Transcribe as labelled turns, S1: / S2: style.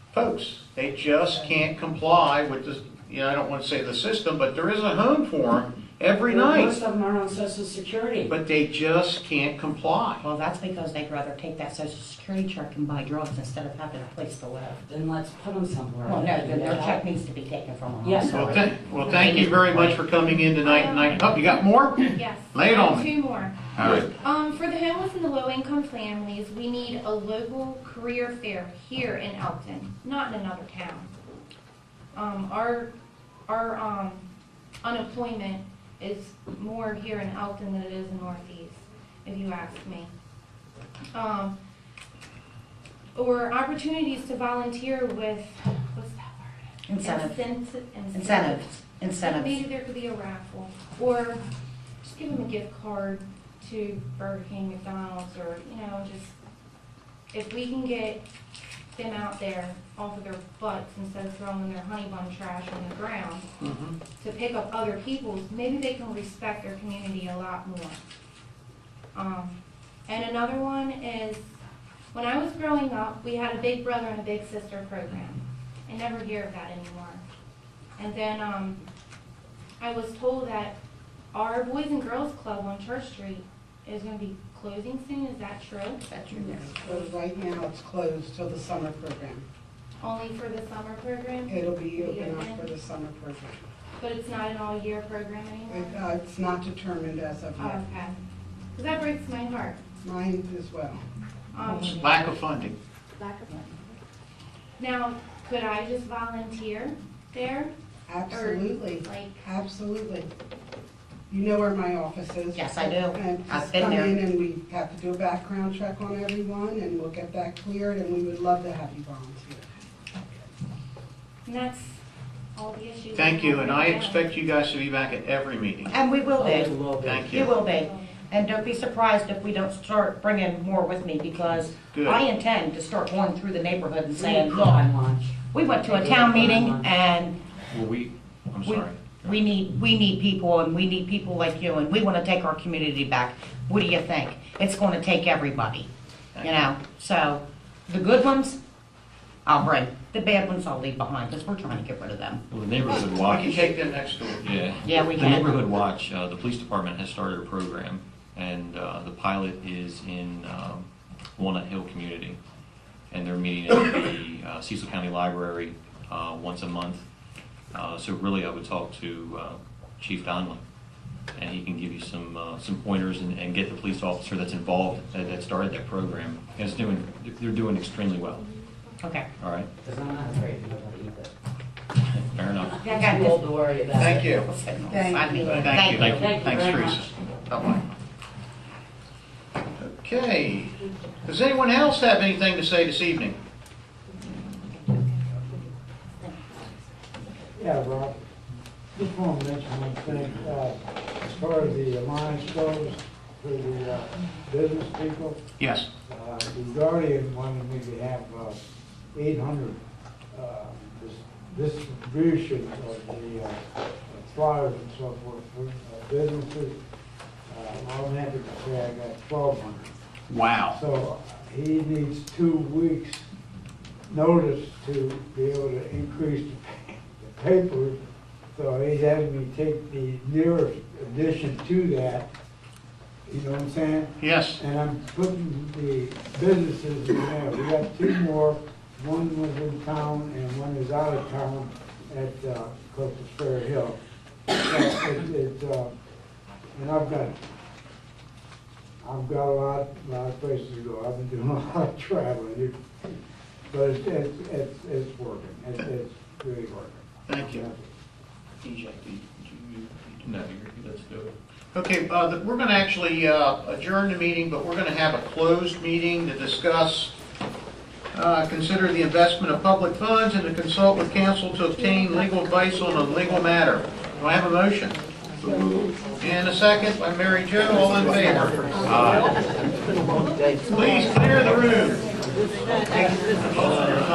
S1: folks. They just can't comply with this, you know, I don't want to say the system, but there is a home for them every
S2: Most
S1: night.
S2: of them are on social security.
S1: But they just can't comply.
S3: Well, that's because they'd rather take that social security check and buy drugs instead of having a place to live.
S2: Then let's put them somewhere.
S3: Well, no, their, their check needs to be taken from them. I'm
S2: Yes.
S1: Well,
S3: sorry.
S1: thank, well, thank you very much for coming in tonight, and I, oh, you got more?
S4: Yes.
S1: Lay it on
S4: Uh,
S1: me.
S4: Two more.
S1: All right.
S4: Um, for the homeless and the low-income families, we need a local career fair here in Elton, not in another town. Um, our, our, um, unemployment is more here in Elton than it is in Northeast, if you ask me. Um, or opportunities to volunteer with, what's that word?
S3: Incentive,
S4: Incent-
S3: incentives,
S4: like
S3: incentives.
S4: Maybe there could be a raffle, or just give them a gift card to Burger King, McDonald's, or, you know, just, if we can get them out there off of their butts instead of throwing their honey bun trash on the ground,
S1: Mhm.
S4: to pick up other people's, maybe they can respect their community a lot more. Um, and another one is, when I was growing up, we had a big brother and a big sister program. I never hear of that anymore. And then, um, I was told that our Boys and Girls Club on Church Street is gonna be closing soon, is that true?
S5: But right now, it's closed till the summer program.
S4: Only for the summer program,
S5: It'll be open up for the summer program.
S4: but it's not an all-year program
S5: It,
S4: anymore?
S5: uh, It's not determined as of yet.
S4: Okay, cause that breaks my heart.
S5: Mine as well.
S4: Um,
S1: Lack of funding.
S4: Now, could I just volunteer there?
S5: Absolutely,
S4: Like,
S5: absolutely. You know where my office is?
S3: Yes, I do.
S5: And
S3: I've
S5: just
S3: been
S5: come
S3: there.
S5: in and we have to do a background check on everyone and we'll get that cleared and we would love to have you volunteer.
S4: and that's all the issues.
S1: Thank you, and I
S4: Yeah.
S1: expect you guys to be back at every meeting.
S3: And we will be,
S1: Thank
S3: you
S1: you.
S3: will be. And don't be surprised if we don't start bringing more with me because
S1: Good.
S3: I intend to start going through the neighborhood and saying, look,
S2: Crime watch.
S3: we went to a town meeting and
S6: Well, we, I'm
S3: We-
S6: sorry.
S3: We need, we need people, and we need people like you, and we want to take our community back. What do you think? It's going to take everybody, you know? So, the good ones, I'll bring. The bad ones, I'll leave behind, because we're trying to get rid of them.
S6: Well, the neighborhood
S1: Why don't you
S6: watch,
S1: take them next door?
S6: yeah.
S3: Yeah, we
S6: The
S3: can.
S6: neighborhood watch, uh, the police department has started a program, and, uh, the pilot is in, um, Walnut Hill community. And they're meeting at the uh, Cecil County Library, uh, once a month. Uh, so really, I would talk to, uh, Chief Donlin, and he can give you some, uh, some pointers and, and get the police officer that's involved, that, that started that program. And it's doing, they're doing extremely well,
S3: Okay.
S6: all right?
S2: Because I'm not afraid of nobody either.
S6: Fair enough.
S3: I got
S2: Too old
S3: this.
S2: to worry about.
S1: Thank you.
S3: I'll sit on the
S5: Thank
S3: side.
S5: you.
S1: Thank you.
S6: Thank
S2: you
S1: Thanks,
S2: very much.
S1: Teresa. Bye-bye. Okay. Does anyone else have anything to say this evening?
S7: Yeah, Rob, just want to mention one thing, uh, as far as the alliance goes, for the uh, business people,
S1: Yes.
S7: uh, the Guardian wanted me to have uh, 800 uh, dis- distribution of the uh, flyers and so forth for uh, businesses. Uh, I'm happy to say I got 1,200.
S1: Wow.
S7: So he needs two weeks' notice to be able to increase the pa- the paper. So he's having me take the nearest addition to that, you know what I'm saying?
S1: Yes.
S7: And I'm putting the businesses in there. We got two more, one was in town and one is out of town at, uh, close to Fair Hill. So it- it, uh, And I've got, I've got a lot, lot of places to go. I've been doing a lot of traveling. It- But it's, it's, it's- it's working. It's, it's really working.
S1: Thank you.
S6: No, you're, let's do it.
S1: Okay, uh, th- we're going to actually uh, adjourn the meeting, but we're going to have a closed meeting to discuss, uh, consider the investment of public funds and to consult with counsel to obtain legal advice on a legal matter. Do I have a motion? And a second by Mary Jo, all in favor? Please clear the room.